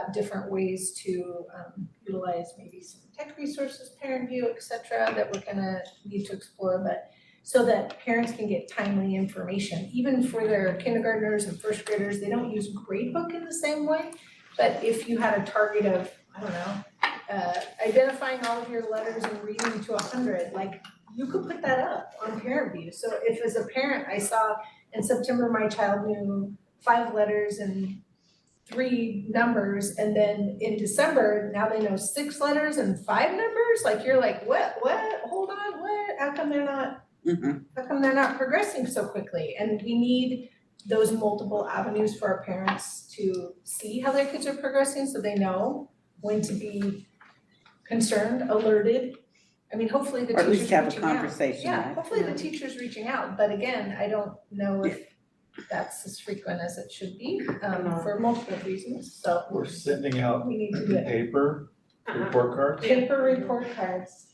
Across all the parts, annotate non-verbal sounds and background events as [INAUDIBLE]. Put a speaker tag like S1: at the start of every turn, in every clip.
S1: about different ways to um, utilize maybe some tech resources, parent view, et cetera, that we're gonna need to explore, but so that parents can get timely information, even for their kindergartners and first graders, they don't use gradebook in the same way. But if you had a target of, I don't know, uh, identifying all of your letters and reading to hundred, like you could put that up on parent view. So if as a parent, I saw in September, my child knew five letters and three numbers and then in December, now they know six letters and five numbers, like you're like, what, what, hold on, what, how come they're not,
S2: Mhm.
S1: how come they're not progressing so quickly? And we need those multiple avenues for our parents to see how their kids are progressing, so they know when to be concerned, alerted. I mean, hopefully the
S2: Or at
S1: teacher's
S2: least have a
S1: reaching out.
S2: conversation,
S1: Yeah,
S2: right?
S1: hopefully the teacher's reaching out, but again, I don't know if that's as frequent as it should be, um, for multiple reasons, so
S3: We're sending out
S1: we need to do it.
S3: paper
S2: Uh-huh.
S3: report cards.
S1: Paper report cards,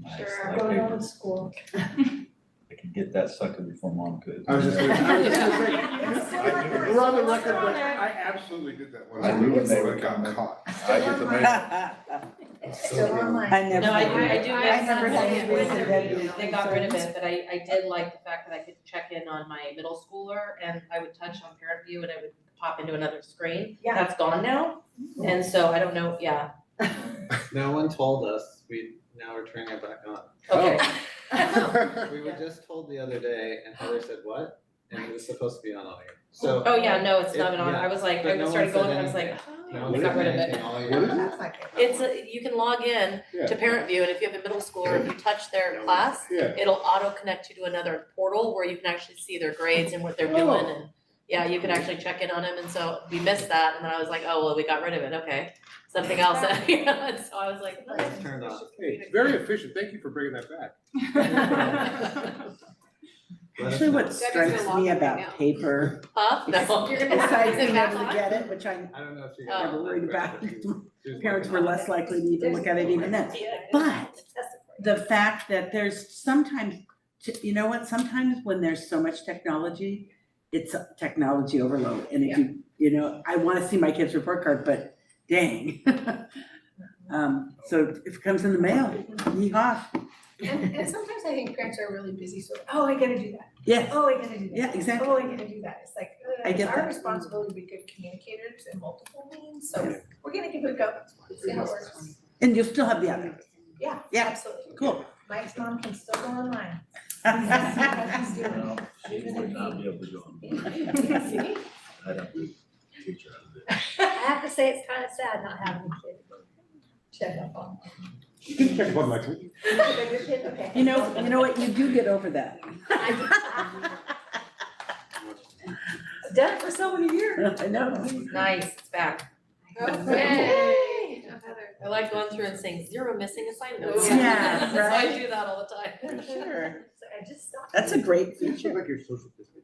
S3: Nice, I like
S1: going
S3: paper.
S1: on to school.
S3: I can get that sucker before mom could.
S4: I was just gonna, I was just gonna say,
S3: I do.
S4: we're on the record, but I absolutely did that one.
S3: I knew when they were
S4: I got
S3: coming.
S4: caught.
S3: I get the mail.
S2: [LAUGHS] I
S1: Still online.
S2: never.
S5: No, I,
S2: do
S5: I
S2: that.
S5: do
S6: I
S5: have
S6: never
S5: some
S6: had
S5: things
S6: it
S5: where
S6: written
S5: they-
S6: down.
S5: They [LAUGHS] got rid of it, but I, I did like the fact that I could check in on my middle schooler and I would touch on parent view and I would pop into another screen.
S1: Yeah.
S5: That's gone now, and so I don't know, yeah,
S7: No one told us, we, now we're turning it back
S5: [LAUGHS]
S7: on.
S5: okay.
S7: Oh. [LAUGHS] We were just told the other day and Heather said, what? And it was supposed to be on all year. So
S5: [LAUGHS] Oh, yeah, no, it's not
S7: It-
S5: been on,
S7: yeah,
S5: I was like,
S7: but no
S5: I
S7: one
S5: started
S7: said
S5: going and I was like,
S7: anything. no
S5: oh,
S7: one
S5: we got
S7: said
S5: rid of it.
S7: anything all
S4: What
S7: year.
S4: is it?
S1: That's not good.
S5: It's, a- you can log in to
S4: [LAUGHS] Yeah,
S5: parent view and if you have a middle schooler, if you touch their class,
S4: yeah.
S5: it'll auto connect you to another portal where you can actually see their grades and what they're doing
S4: Oh.
S5: and yeah, you can actually check in on them and so we missed that and then I was like, oh, well, we got rid of it, okay. Something else, [LAUGHS] you know, and so I was like, oh.
S7: It's turned off.
S4: Hey, it's very efficient, thank you for bringing that back.
S7: Let us
S2: Actually,
S7: know.
S2: what
S6: Debbie's
S2: strikes
S6: gonna log
S2: me
S6: in right
S2: about
S6: now.
S5: [LAUGHS]
S2: paper,
S5: Huh? No. You're [LAUGHS]
S2: besides
S5: Is it
S2: being
S5: back
S2: able to
S5: on?
S2: get it, which I,
S7: I don't know if you.
S5: Oh.
S2: Never worried about it.
S7: She's- she's
S2: parents were
S7: looking.
S2: less likely to even look at it even then. But the fact that there's sometimes, t- you know what, sometimes when there's so much technology, it's a technology overload, and if you, you know, I wanna see my kid's report card, but dang. [LAUGHS] Um, so if it comes in the mail, yeehaw,
S1: And, and sometimes I think parents are really busy, so, oh, I gotta do that,
S2: yes,
S1: oh, I gotta do that.
S2: yeah, exactly.
S1: Oh, I gotta do that, it's like, uh,
S2: I
S1: it's
S2: get
S1: our
S2: that.
S1: responsibility to be good communicators in multiple means, so
S2: Yes.
S1: we're gonna give it a go, see how it works.
S2: And you'll still have the other,
S1: Yeah,
S2: Yeah.
S1: absolutely.
S2: cool. [LAUGHS]
S1: Mike's mom can still go
S6: [LAUGHS]
S1: online. [LAUGHS] She's
S3: [LAUGHS]
S1: doing
S3: No, she would not be able to go on.
S1: it. See?
S3: I don't do teacher out of it.
S6: I have to say, it's kind of sad not having a kid.
S1: Check up
S6: [LAUGHS]
S1: on.
S4: You can check one, Michael.
S6: But your kid, okay.
S2: You know, you know what, you do get over that.
S1: Done it for so many years.
S2: I know.
S5: [LAUGHS] Nice, it's back.
S6: Yay.
S5: I like going through and saying zero missing assignments. [LAUGHS]
S6: Yeah,
S5: So I
S2: right?
S5: do that all the time. [LAUGHS]
S2: For sure.
S6: So I just stopped.
S2: That's a great
S7: She's
S2: feature.
S7: like your social distancing.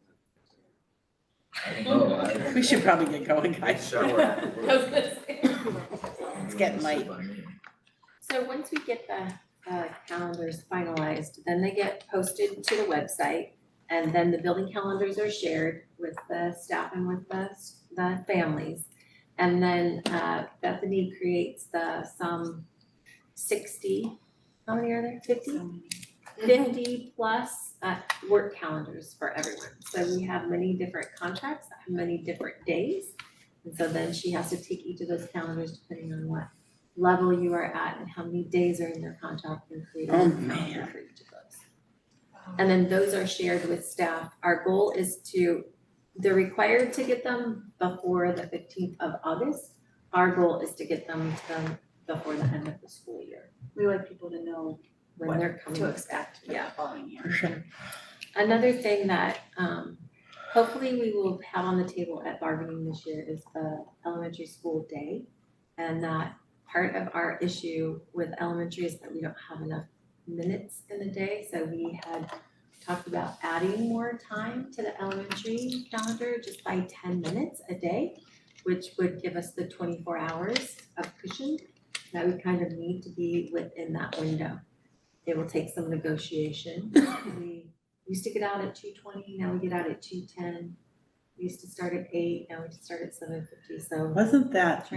S3: I don't know. I-
S2: We should probably get going, guys.
S3: Shower afterwards.
S5: I was gonna say.
S2: It's getting late.
S8: So once we get the uh calendars finalized, then they get posted to the website. And then the building calendars are shared with the staff and with the s- the families. And then uh Bethany creates the some sixty, how many are there, fifty? Fifty plus uh work calendars for everyone. So we have many different contracts that have many different days. And so then she has to take each of those calendars depending on what level you are at and how many days are in their contract and create a
S2: Oh,
S8: calendar for each of those.
S1: Um,
S8: And then those are shared with staff. Our goal is to, they're required to get them before the fifteenth of August. Our goal is to get them to them before the end of the school year. We want people to know when they're coming.
S6: to expect.
S8: Yeah.
S6: Following year.
S8: Another thing that um hopefully we will have on the table at bargaining this year is the elementary school day. And that part of our issue with elementary is that we don't have enough minutes in the day, so we had talked about adding more time to the elementary calendar just by ten minutes a day, which would give us the twenty-four hours of cushion that we kind of need to be within that window. It will take some negotiation. We we used to get out at two twenty, now we get out at two ten. We used to start at eight, now we start at seven fifty, so
S2: Wasn't that